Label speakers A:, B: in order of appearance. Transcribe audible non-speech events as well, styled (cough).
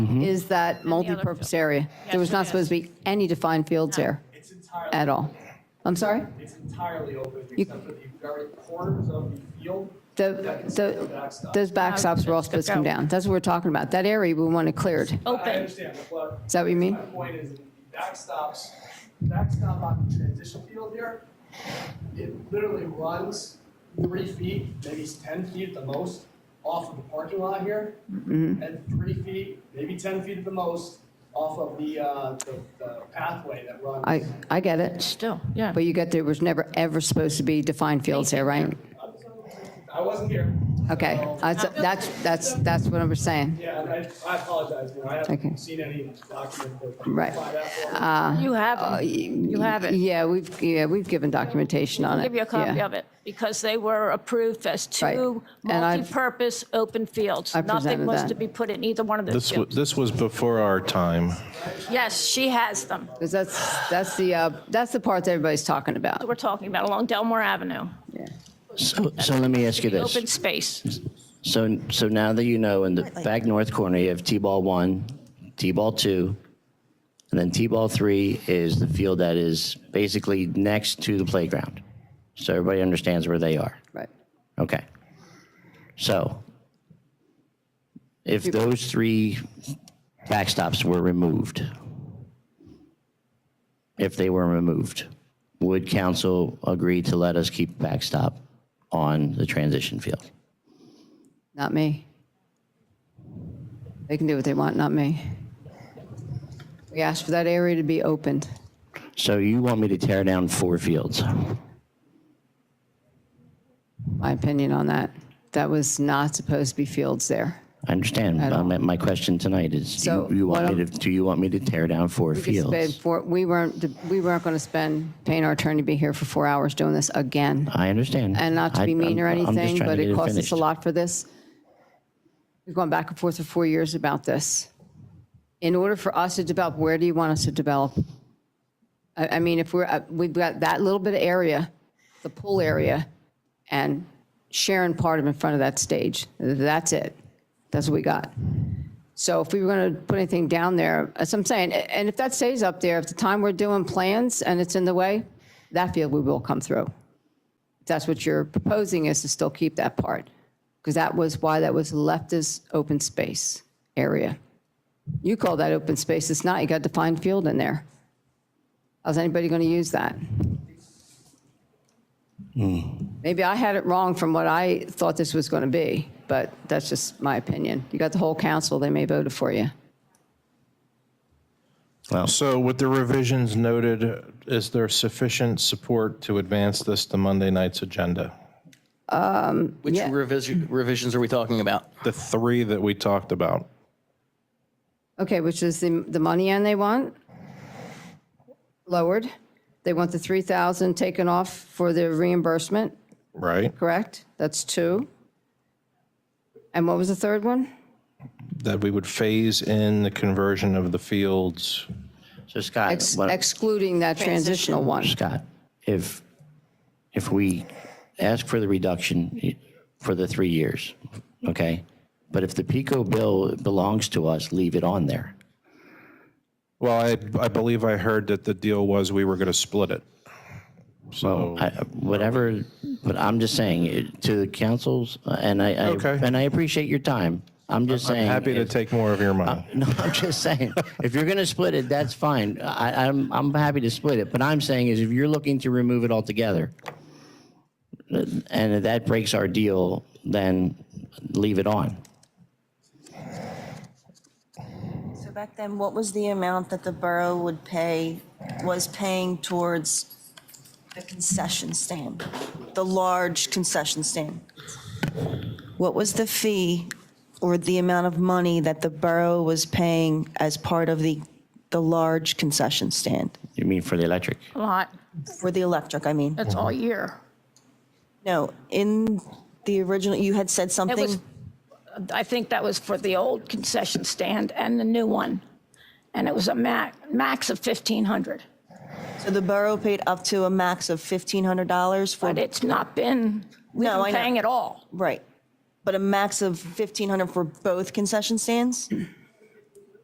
A: is that multipurpose area. There was
B: Yes,
A: not
B: it
A: supposed to be any defined fields there
C: It's entirely.
A: at all. I'm sorry?
C: It's entirely open except for the very corners of the field.
A: Oh, The,
C: That is the
A: the,
C: backstop.
A: those backstops were all
B: it's good
A: supposed to come
B: go.
A: down. That's what we're talking about. That area we want it cleared.
C: I
B: Open.
C: understand, but.
A: Is that what you mean?
C: My point is, the backstops, backstop on the transition field here, it literally runs three feet, maybe it's ten feet at the most, off of the parking lot here.
A: Mm-hmm.
C: And three feet, maybe ten feet at the most, off of the, uh, the- the pathway that runs.
A: I, I get it.
B: Still, yeah.
A: But you got there was never, ever supposed to be defined fields there, right?
C: I wasn't here.
A: Okay,
C: so-
A: I- so that's, that's, that's what I was saying.
C: Yeah, and I, I apologize, you know, I
A: Okay.
C: haven't seen any document that.
A: Right.
C: By that far.
B: You have, you have it.
A: uh, Yeah, we've, yeah, we've given documentation on it.
B: I'll give you a copy
A: Yeah.
B: of it, because they were approved as two
A: Right. And I've-
B: multi-purpose open fields.
A: I
B: Nothing
A: presented
B: was
A: that.
B: to be put in either one of those
D: This, wa-
B: fields.
D: this was before our time.
B: Yes, she has them,
A: 'Cause that's, that's the, uh, that's the part that everybody's talking about.
B: that we're talking about, along Delmore Avenue.
E: So, so let me ask you
B: The
E: this.
B: Open space,
E: So, so now that you know, in the back north corner, you have T-ball one, T-ball two, and then T-ball three is the field that is basically next to the playground. So everybody understands where they are.
A: Right.
E: Okay. So if those three backstops were removed, if they were removed, would council agree to let us keep backstop on the transition field?
A: Not me. They can do what they want, not me. We asked for that area to be opened.
E: So you want me to tear down four fields?
A: My opinion on that. That was not supposed to be fields there.
E: I understand.
A: don't-
E: Um, My question tonight is, do
A: So,
E: you- you
A: why
E: want me to,
A: don't-
E: do you want me to tear down four
A: We could spend
E: fields?
A: four- We weren't, we weren't going to spend, paying our attorney to be here for four hours doing this again.
E: I understand.
A: And not to
E: I-
A: be mean or
E: I'm- I'm just
A: anything,
E: trying to
A: but
E: get
A: it cost us a
E: finished.
A: lot for this. We've gone back and forth for four years about this. In order for us to develop, where do you want us to develop? I, I mean, if we're, uh, we've got that little bit of area, the pool area, and Sharon part of in front of that stage. That's it. That's what we got. So if we were going to put anything down there, as I'm saying, a- and if that stays up there, if the time we're doing plans and it's in the way, that field we will come through that's what you're proposing is to still keep that part, because that was why that was left as open space area. You call that open space, it's not, you got defined field in there. How's anybody going to use that? Maybe I had it wrong from what I thought this was going to be, but that's just my opinion. You got the whole council, they may vote it for you.
D: So with the revisions noted, is there sufficient support to advance this to Monday night's agenda?
F: Which
A: Yeah.
F: revision, revisions are we talking about?
D: The three that we talked about.
A: Okay, which is the, the money end they want lowered. They want the 3,000 taken off for the reimbursement.
D: Right.
A: correct? That's two. And what was the third one?
D: That we would phase in the conversion of the fields.
E: So Scott,
A: Ex-
E: what-
A: Excluding that transitional one.
E: Scott, if, if we ask for the reduction for the three years, okay? But if the PICO bill belongs to us, leave it on there.
D: Well, I, I believe I heard that the deal was we were going to split it. So,
E: I- Whatever, but I'm just saying, it- to the councils, and I, I-
D: Okay.
E: and I appreciate your time. I'm just saying.
D: happy to
E: if-
D: take more of your money.
E: (laughs) No, I'm just saying, if you're going to split it, that's fine. I, I'm, I'm happy to split it. But I'm saying is if you're looking to remove it altogether, and if that breaks our deal, then leave it on.
G: So back then, what was the amount that the borough would pay, was paying towards the concession stand? The large concession stand? What was the fee or the amount of money that the borough was paying as part of the, the large concession stand?
E: You mean for the electric?
B: a lot,
G: For the electric, I mean.
B: that's all year.
G: No, in the original, you had said
B: It was,
G: something,
B: I think that was for the old concession stand and the new one, and it was a ma, max of 1,500,
G: so the borough paid up to a max of $1,500 for
B: but it's not been, we've
G: No, I
B: been
G: know.
B: paying it all.
G: Right. But a max of 1,500 for both concession stands?